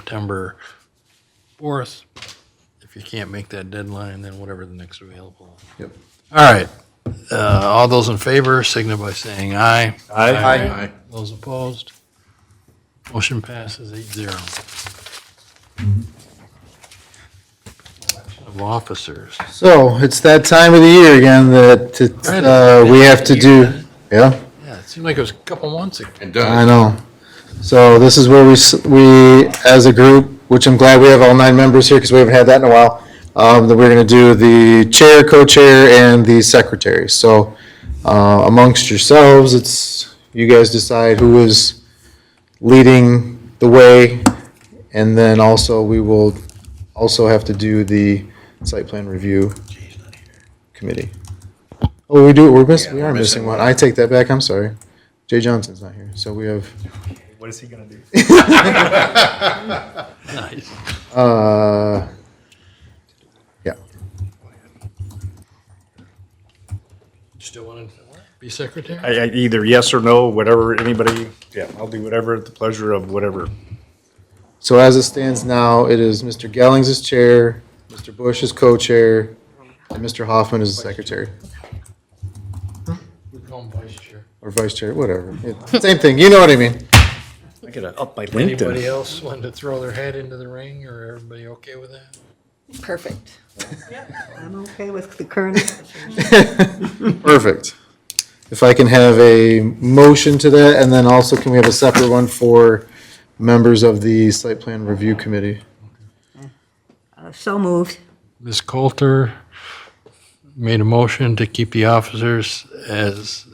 September 4th. If you can't make that deadline, then whatever the next available. Yep. All right. Uh, All those in favor signify by saying aye. Aye. Those opposed? Motion passes eight zero. Election Of officers. So it's that time of the year again that it's, uh, we have to do, yeah, Yeah, it seemed like it was a couple months ago. And I done. know. So this is where we, s- we, as a group, which I'm glad we have all nine members here because we haven't had that in a while, um, that we're going to do the chair, co-chair, and the secretary. So uh, amongst yourselves, it's, you guys decide who is leading the way. And then also, we will also have to do the site plan review committee. Oh, we do, we're missing, we Yeah, are we're missing missing one. I take that back, I'm sorry. Jay Johnson's not here, so we have, What is he gonna do? Nice. uh, yeah. Still want to be secretary? I, I, either yes or no, whatever, anybody, yeah, I'll do whatever at the pleasure of whatever. So as it stands now, it is Mr. Gellings is chair, Mr. Bush is co-chair, and Mr. Hoffman is secretary, We call him vice chair. or vice chair, whatever. It- Same thing, you know what I mean? I gotta up my Anybody else want to throw their hat into the ring, or everybody okay with that? Perfect. I'm okay with the current. Perfect. If I can have a motion to that, and then also can we have a separate one for members of the site plan review committee? Uh, So moved. Ms. Coulter made a motion to keep the officers as,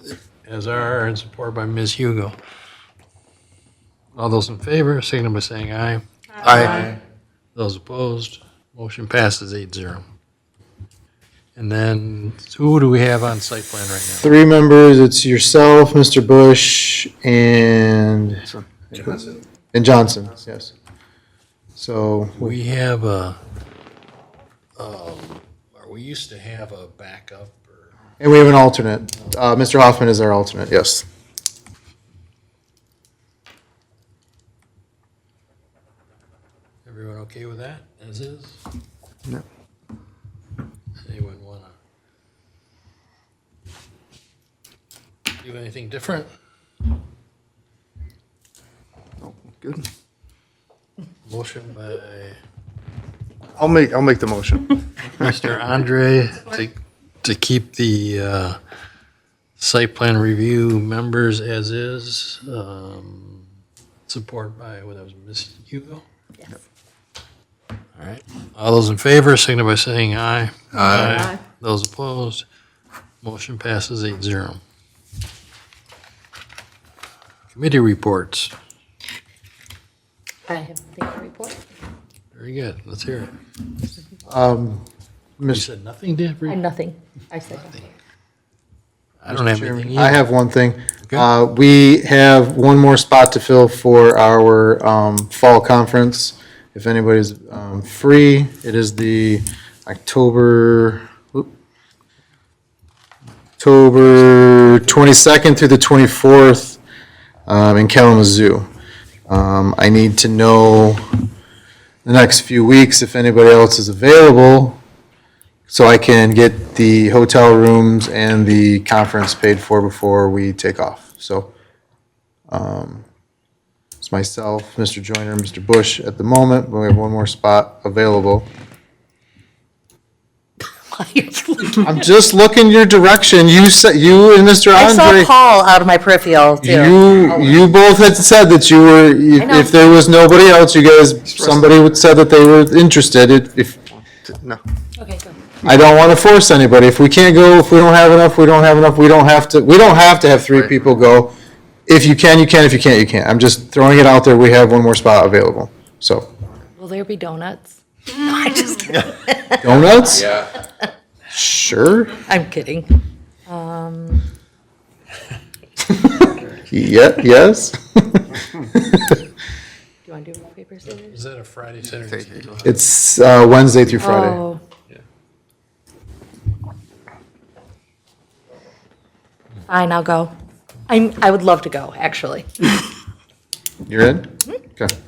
as are, and supported by Ms. Hugo. All those in favor, signal by saying aye. Aye. Those opposed, motion passes eight zero. And then, who do we have on site plan right Three members, it's yourself, Mr. Bush, and, and Johnson, yes. So, now? We have a, um, or we used to have a backup, or, and we have an alternate. Uh, Mr. Hoffman is our alternate, yes. everyone okay with that, as is? No. Anyone wanna? Do anything different? Good. Motion by I'll make, I'll make the motion. Mr. Andre to, to keep the, uh, site plan review members as is, um, support by, what that was, Ms. Hugo? All right, all those in favor, signify by saying aye. Aye. Those opposed, motion passes eight zero. Committee reports, I have nothing to report. very good, let's hear it. Um, You Mr. said nothing, Deb? I nothing. I said nothing. I don't have Chairman, anything I either. have one thing. Okay. Uh, we have one more spot to fill for our, um, fall conference. If anybody's, um, free, it is the October, oop, October twenty-second through the twenty-fourth, um, in Kalamazoo. Um, I need to know the next few weeks if anybody else is available, so I can get the hotel rooms and the conference paid for before we take off. So um, it's myself, Mr. Joyner, and Mr. Bush at the moment, but we have one more spot available. Why are you looking? I'm just looking your direction. You said, you and Mr. I saw Andre. Paul out of my peripheral too. You, you both had said that you were, if- Oh. know. if there was nobody else, you guys, somebody would said that they were interested. If- If, No. Okay, so I don't want to force anybody. If we can't go, if we don't have enough, we don't have enough. We don't have to, we don't have to have three people go. If you can, you can. If you can't, you can't. I'm just throwing it out there. We have one more spot available. So will there be donuts? No, I just kidding. donuts? Yeah. Sure. I'm kidding. Um, Yeah, yes. do you want to do rock, paper, scissors? Is that a Friday, Saturday? Sunday? It's uh, Wednesday through Friday. Oh. Fine, I'll go. I'm, I would love to go, actually. Hmm? You're in? Okay.